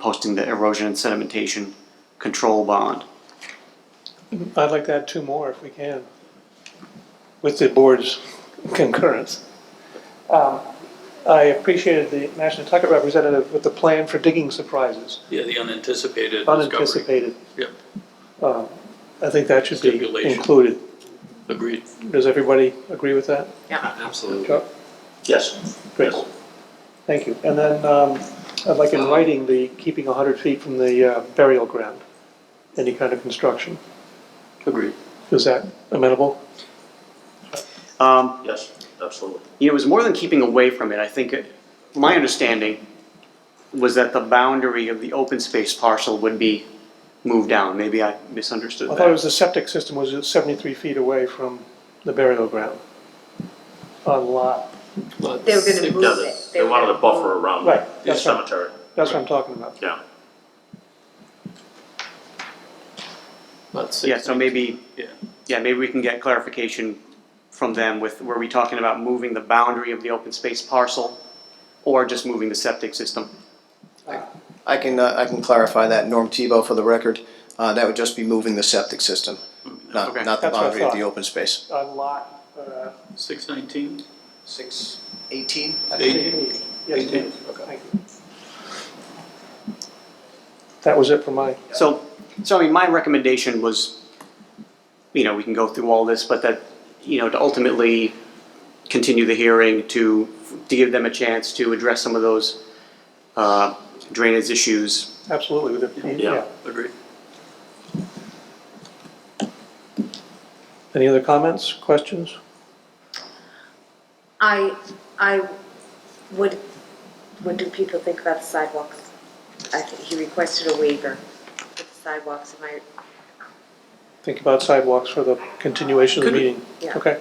posting the erosion and sedimentation control bond. I'd like to add two more if we can, with the board's concurrence. Um, I appreciated the National Tucket representative with the plan for digging surprises, Yeah, the unanticipated discovery. unanticipated. Yep, I think that should be Stipulation. included. agreed. Does everybody agree with that? Absolutely. Chuck? Yes. Great. Thank you. And then um, I'd like in writing the keeping 100 feet from the uh, burial ground, any kind of construction. Agreed. Is that amenable? Um, Yes, absolutely. you know, it was more than keeping away from it. I think it, my understanding was that the boundary of the open space parcel would be moved down. Maybe I misunderstood I that. thought it was the septic system was 73 feet away from the burial ground on lot. They were gonna move No, they- it. They were wanted a gonna buffer move- around Right, the that's right. cemetery, That's what I'm talking about. yeah. yeah, so maybe Yeah, yeah, maybe we can get clarification from them with were we talking about moving the boundary of the open space parcel or just moving the septic system? I can, uh, I can clarify that, Norm Tebow for the record, uh, that would just be moving the septic system, not, Okay. not the That's what I boundary of the thought. open space. On lot, uh, six nineteen, Six eighteen? eighteen. yes, please. Thank you. That was it for my, So, so I mean, my recommendation was, you know, we can go through all this, but that, you know, to ultimately continue the hearing to, to give them a chance to address some of those uh, drainage issues. absolutely, with the, Yeah. yeah. agreed. Any other comments, questions? I, I would, what do people think about the sidewalks? I think he requested a waiver for the sidewalks, am I, Think about sidewalks for the continuation of the Could we- meeting. Yeah. Okay.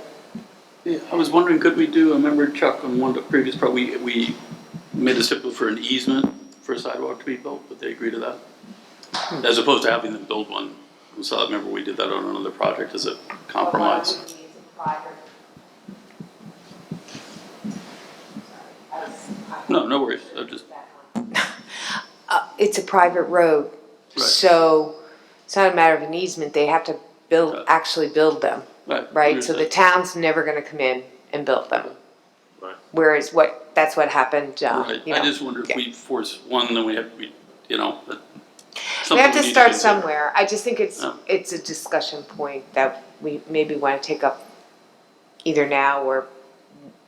Yeah, I was wondering, could we do, I remember Chuck on one of the previous, part, we, we made a stipulation for an easement for a sidewalk to be built, would they agree to that? As opposed to having them build one. So I remember we did that on another project as a compromise. No, no worries, I just, it's a private road, Right. so it's not a matter of an easement, they have to build, Right. actually build them, right. right? So the understood. town's never gonna come in and build them. Right. Whereas what, that's what happened, uh, Right, you I know. just wonder if yeah. we force one, then we have, we, you know, but. We something have to need start consider. somewhere, I just think it's, Yeah. it's a discussion point that we maybe wanna take up either now or,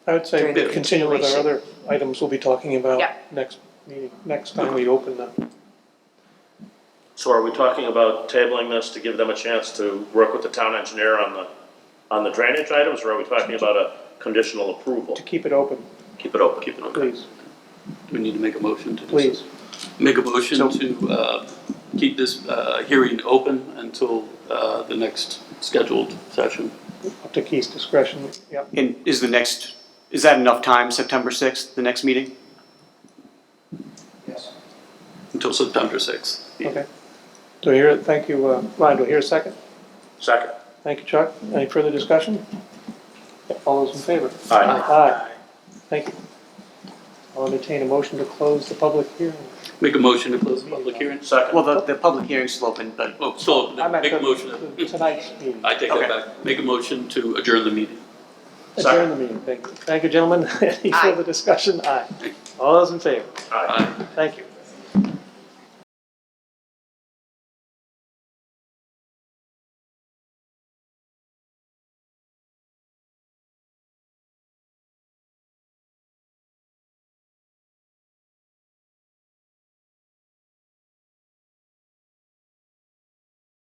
I would say During the continue with our other continuation. items we'll be talking about Yeah. next meeting, next time we open the. So are we talking about tabling this to give them a chance to work with the town engineer on the, on the drainage items? Or are we talking about a conditional approval? to keep it open, Keep it open. Keep it please, We need to make a motion to do so. please. Make a motion to uh, keep this uh, hearing open until uh, the next scheduled session. Up to Keith's discretion, yep. And is the next, is that enough time, September 6th, the next meeting? Until September 6th. Okay. Do I hear, thank you, uh, Ryan, do I hear a second? Second. Thank you, Chuck. Any further discussion? All those in favor? Aye. Aye. Thank you. I'll entertain a motion to close the public hearing. Make a motion to close the public hearing. Second. Well, the, the public hearing's still open, but Oh, so I'm at make a the- motion. the- Tonight's meeting. I take Okay. that back. Make a motion to adjourn the meeting. Adjourn the meeting. Thank you. Thank you, gentlemen. Any Aye. further discussion? Aye. All those in favor? Aye. Aye. Thank you.